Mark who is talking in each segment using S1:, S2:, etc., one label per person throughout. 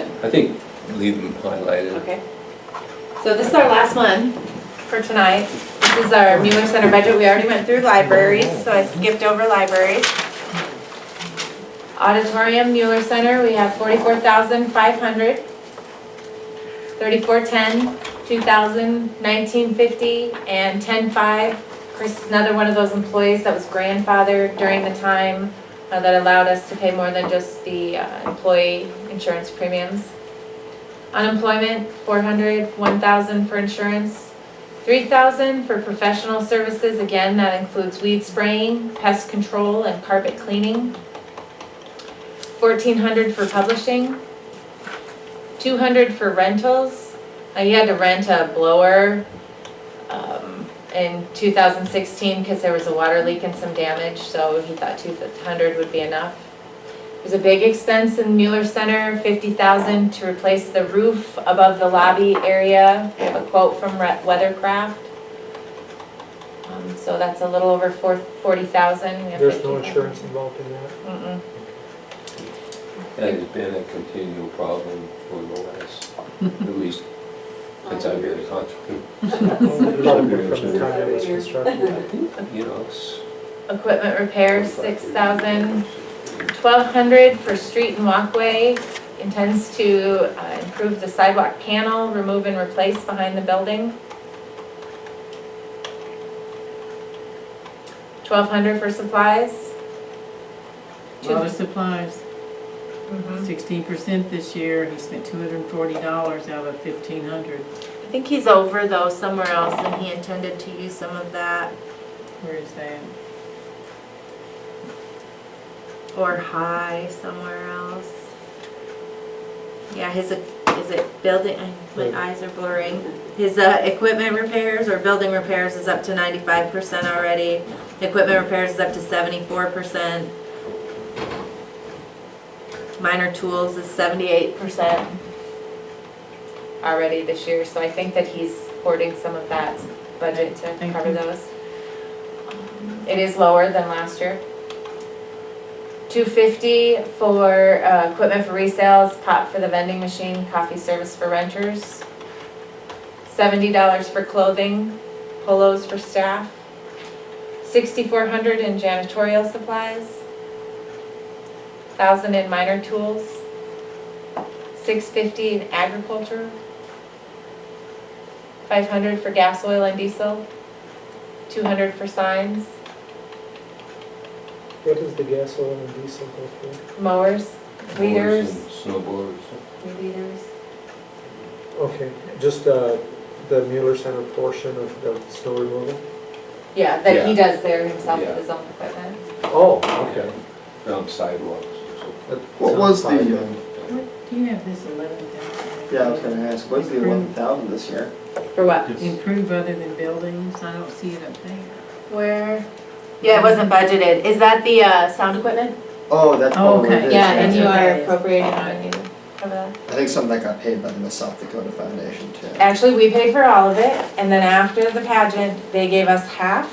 S1: I think leave them highlighted.
S2: Okay. So this is our last one for tonight. This is our Mueller Center budget. We already went through libraries, so I skipped over libraries. Auditorium, Mueller Center, we have forty-four thousand five hundred. Thirty-four ten, two thousand, nineteen fifty, and ten-five. Chris is another one of those employees that was grandfathered during the time uh, that allowed us to pay more than just the uh, employee insurance premiums. Unemployment, four hundred, one thousand for insurance, three thousand for professional services, again, that includes weed spraying, pest control, and carpet cleaning. Fourteen hundred for publishing, two hundred for rentals, Uh, you had to rent a blower, um, in two thousand sixteen, cause there was a water leak and some damage, so he thought two hundred would be enough. There's a big expense in Mueller Center, fifty thousand to replace the roof above the lobby area. We have a quote from Re- Weathercraft. Um, so that's a little over four, forty thousand.
S3: There's no insurance involved in that?
S2: Mm-mm.
S1: That has been a continual problem for the last, at least since I've been in contract.
S3: Probably From the time it was
S1: I
S3: constructed.
S1: think, you know, it's.
S2: Equipment repairs, six thousand. Twelve hundred for street and walkway. Intends to uh, improve the sidewalk panel, remove and replace behind the building. Twelve hundred for supplies.
S4: A lot of supplies,
S2: Mm-hmm.
S4: sixteen percent this year, he spent two hundred and forty dollars out of fifteen hundred.
S2: I think he's over though somewhere else and he intended to use some of that
S4: Where is that?
S2: or high somewhere else. Yeah, his, uh, is it building, uh, my eyes are blurring. His uh, equipment repairs or building repairs is up to ninety-five percent already. Equipment repairs is up to seventy-four percent. Minor tools is seventy-eight percent already this year, so I think that he's hoarding some of that budget to
S4: Thank
S2: cover
S4: you.
S2: those. It is lower than last year. Two fifty for, uh, equipment for resales, pot for the vending machine, coffee service for renters. Seventy dollars for clothing, polos for staff. Sixty-four hundred in janitorial supplies. Thousand in minor tools. Six fifty in agriculture. Five hundred for gas, oil, and diesel. Two hundred for signs,
S3: What does the gas, oil, and diesel go for?
S2: mowers,
S1: Mowers
S2: weeders.
S1: and Snowboards.
S2: Leaders.
S3: Okay, just uh, the Mueller Center portion of the snow removal?
S2: Yeah, that he does there himself with his own equipment.
S3: Oh, okay.
S1: Around sidewalks and so forth.
S3: That
S5: What was
S3: sounds fine
S5: the, um,
S3: then.
S4: What, do you have this eleven thousand?
S5: Yeah, I was gonna ask, what's the eleven thousand this year?
S2: For what?
S4: Improve other than buildings, I don't see it up there.
S2: Where? Yeah, it wasn't budgeted. Is that the, uh, sound equipment?
S5: Oh, that's probably what
S4: Okay.
S5: it is.
S2: Yeah, and
S4: it's
S2: you are
S4: okay.
S2: appropriating on you. for that.
S5: I think some of that got paid by the Miss South Dakota Foundation too.
S2: Actually, we paid for all of it, and then after the pageant, they gave us half.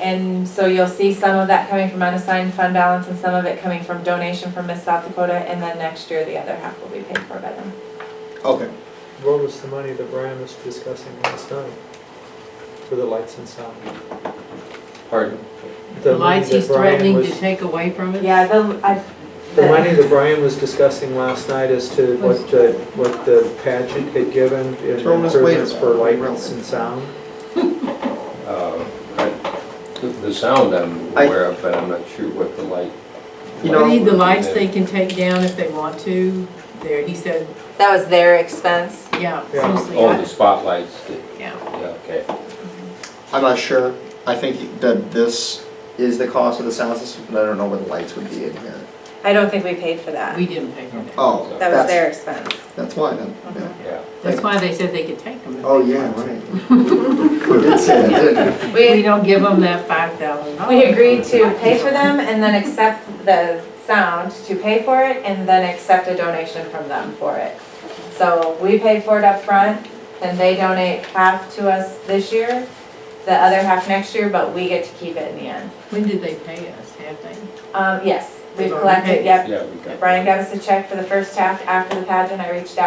S2: And so you'll see some of that coming from unassigned fund balance and some of it coming from donation from Miss South Dakota, and then next year, the other half will be paid for by them.
S5: Okay,
S3: What was the money that Brian was discussing last night for the lights and sound?
S1: Pardon?
S3: The
S4: The
S3: money
S4: lights
S3: that
S4: he's
S3: Brian
S4: threatening
S3: was-
S4: to take away from it?
S2: Yeah, the, I.
S3: The money that Brian was discussing last night as to what, uh, what the pageant had given in
S5: Throw this way
S3: improvements for
S5: around.
S3: lights and sound.
S1: Uh, I- The the sound I'm
S5: I-
S1: aware of, but I'm not sure what the light.
S4: We
S5: You know-
S4: need the lights they can take down if they want to, there, he said,
S2: That was their expense.
S4: yeah,
S3: Yeah.
S4: mostly,
S1: Oh, the
S4: I-
S1: spotlights, that-
S4: yeah.
S1: yeah, okay.
S5: I'm not sure, I think that this is the cost of the sound system, but I don't know what the lights would be in here.
S2: I don't think we paid for that.
S4: We didn't pay for that.
S5: Oh,
S2: That was
S5: that's,
S2: their expense.
S5: that's why then, yeah.
S1: Yeah,
S4: That's why they said they could take them.
S5: Oh, yeah, right. We did say that, didn't we?
S4: We don't give them that five thousand dollars.
S2: We agreed to pay for them and then accept the sound to pay for it and then accept a donation from them for it. So we paid for it up front, and they donate half to us this year, the other half next year, but we get to keep it in the end.
S4: When did they pay us, have they?
S2: Um, yes, we've
S4: They've already
S2: collected,
S4: paid.
S2: yep.
S1: yeah, we got.
S2: Brian gave us a check for the first half after the pageant. I reached out